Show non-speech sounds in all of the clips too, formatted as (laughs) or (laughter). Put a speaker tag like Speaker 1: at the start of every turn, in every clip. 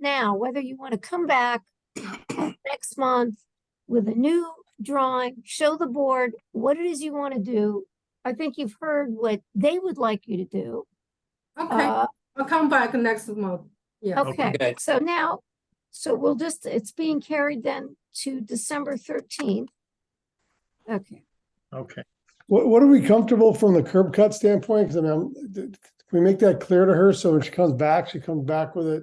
Speaker 1: now, whether you want to come back next month with a new drawing, show the board what it is you want to do. I think you've heard what they would like you to do.
Speaker 2: Okay,
Speaker 1: Uh,
Speaker 2: I'll come back next month. Yeah.
Speaker 1: okay,
Speaker 3: Okay.
Speaker 1: so now, so we'll just, it's being carried then to December thirteenth. Okay,
Speaker 4: Okay,
Speaker 5: What, what are we comfortable from the curb cut standpoint? Cause I mean, I'm- th- can we make that clear to her? So when she comes back, she comes back with it.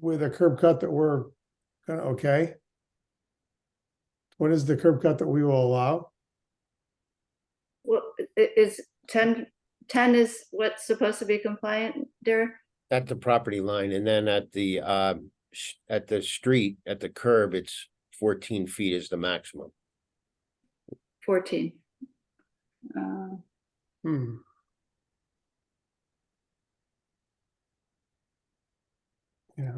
Speaker 5: With a curb cut that we're gonna, okay? What is the curb cut that we will allow?
Speaker 6: Well, i- i- is ten, ten is what's supposed to be compliant, dear?
Speaker 3: At the property line and then at the, um, sh- at the street, at the curb, it's fourteen feet is the maximum.
Speaker 6: Fourteen. Uh,
Speaker 5: Hmm, yeah.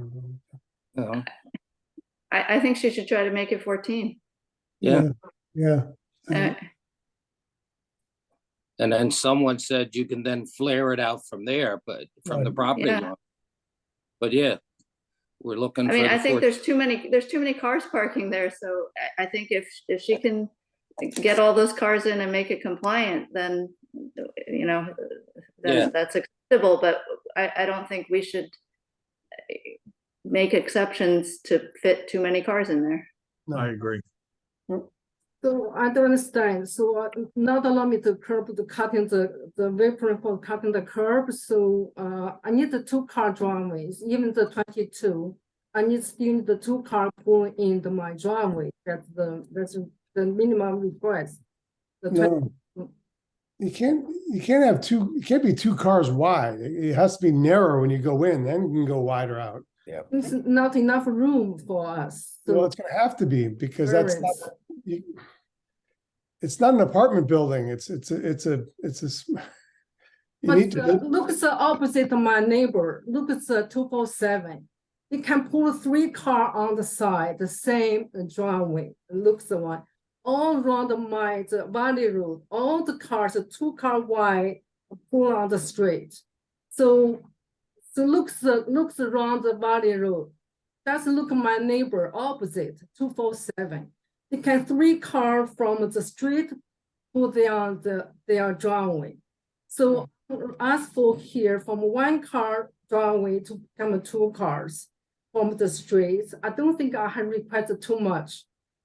Speaker 7: Yeah,
Speaker 6: I, I think she should try to make it fourteen.
Speaker 7: Yeah.
Speaker 5: Yeah.
Speaker 6: Uh,
Speaker 7: and then someone said you can then flare it out from there, but from the
Speaker 5: Right.
Speaker 7: property
Speaker 6: Yeah.
Speaker 7: line. But yeah, we're looking.
Speaker 6: I
Speaker 7: for
Speaker 6: mean,
Speaker 7: the
Speaker 6: I think
Speaker 7: 14
Speaker 6: there's too many, there's too many cars parking there, so I, I think if, if she can get all those cars in and make it compliant, then, you know,
Speaker 7: Yeah.
Speaker 6: then that's acceptable, but I, I don't think we should eh, make exceptions to fit too many cars in there.
Speaker 4: I agree.
Speaker 2: So I don't understand. So uh, not allow me to curb the cutting the, the apron for cutting the curb. So, uh, I need the two car driveways, even the twenty-two. I need still need the two car going in the my driveway. That's the, that's the minimum request. The twen-
Speaker 5: No. You can't, you can't have two, it can't be two cars wide. It it has to be narrow when you go in, then you can go wider out.
Speaker 2: It's not enough room for us.
Speaker 5: Well,
Speaker 2: So
Speaker 5: it's gonna have to be because that's not,
Speaker 2: Parents.
Speaker 5: you- it's not an apartment building. It's, it's, a it's a, it's a. s- (laughs) You need
Speaker 2: But uh,
Speaker 5: to,
Speaker 2: look at the opposite of my neighbor, look at the two four seven. You can pull three car on the side, the same driveway, looks the one. All around my, the valley road, all the cars, the two car wide, pull on the street. So, so looks, the- looks around the valley road. That's look at my neighbor opposite, two four seven. You can three car from the street, pull their, the, their driveway. So ask for here from one car driveway to become two cars from the streets. I don't think I have requested too much.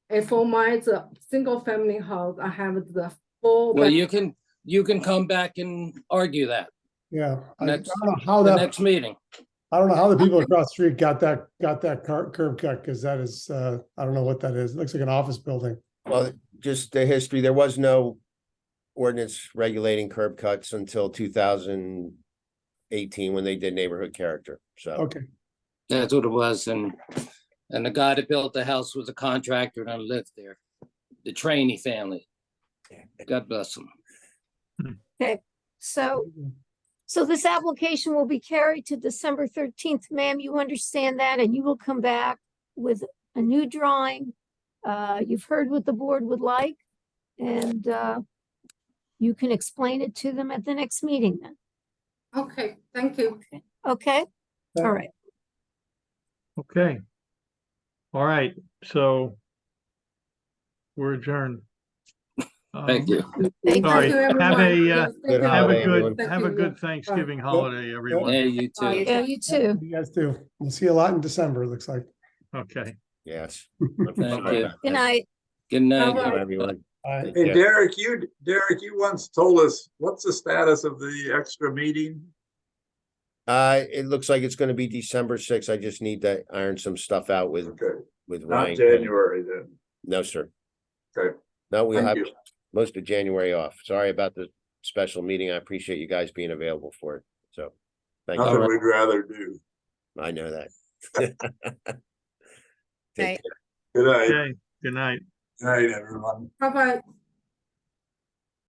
Speaker 2: And for my the single family house, I have the four.
Speaker 7: Well,
Speaker 2: bed-
Speaker 7: you can, you can come back and argue that,
Speaker 5: yeah, I I don't
Speaker 7: Next-
Speaker 5: know how
Speaker 7: the
Speaker 5: that,
Speaker 7: next meeting.
Speaker 5: I don't know how the people across the street got that, got that car, curb cut, because that is, uh, I don't know what that is. It looks like an office building.
Speaker 3: Well, just the history, there was no ordinance regulating curb cuts until two thousand eighteen when they did neighborhood character, so.
Speaker 5: Okay,
Speaker 7: That's what it was, and, and the guy that built the house was a contractor and I lived there. The Trainee family. God bless them.
Speaker 1: so, so this application will be carried to December thirteenth, ma'am, you understand that, and you will come back with a new drawing. Uh, you've heard what the board would like, and, uh, you can explain it to them at the next meeting then,
Speaker 2: Okay, thank you.
Speaker 1: okay? All right.
Speaker 4: Okay. All right, so we're adjourned.
Speaker 7: Thank
Speaker 4: Um,
Speaker 7: you.
Speaker 1: Thank
Speaker 4: All right,
Speaker 1: you.
Speaker 2: Thank you,
Speaker 4: have
Speaker 2: everyone.
Speaker 4: a, uh,
Speaker 2: Yes, thank
Speaker 3: Good
Speaker 2: you.
Speaker 4: Have
Speaker 3: holiday,
Speaker 4: a
Speaker 3: everyone.
Speaker 4: good, have a good Thanksgiving holiday, everyone.
Speaker 7: Yeah, you too.
Speaker 1: Yeah, you too.
Speaker 5: you guys too. We'll see a lot in December, it looks like.
Speaker 4: Okay.
Speaker 3: Yes.
Speaker 7: you.
Speaker 1: Good night.
Speaker 7: Good night.
Speaker 2: Bye-bye.
Speaker 3: Everyone.
Speaker 5: All right.
Speaker 3: Take
Speaker 8: Hey,
Speaker 3: care.
Speaker 8: Derek, you, Derek, you once told us, what's the status of the extra meeting?
Speaker 3: Uh, it looks like it's gonna be December sixth. I just need to iron some stuff out with,
Speaker 8: Okay,
Speaker 3: with
Speaker 8: not
Speaker 3: Ryan.
Speaker 8: January then.
Speaker 3: No, sir.
Speaker 8: Okay,
Speaker 3: No, we'll
Speaker 8: thank
Speaker 3: have
Speaker 8: you.
Speaker 3: most of January off. Sorry about the special meeting. I appreciate you guys being available for it, so. Thank
Speaker 8: Nothing
Speaker 3: you.
Speaker 8: we'd rather do.
Speaker 3: I know that. (laughs) Take
Speaker 8: Good night,
Speaker 4: Okay, good night.
Speaker 8: good night, everyone.
Speaker 2: Bye-bye.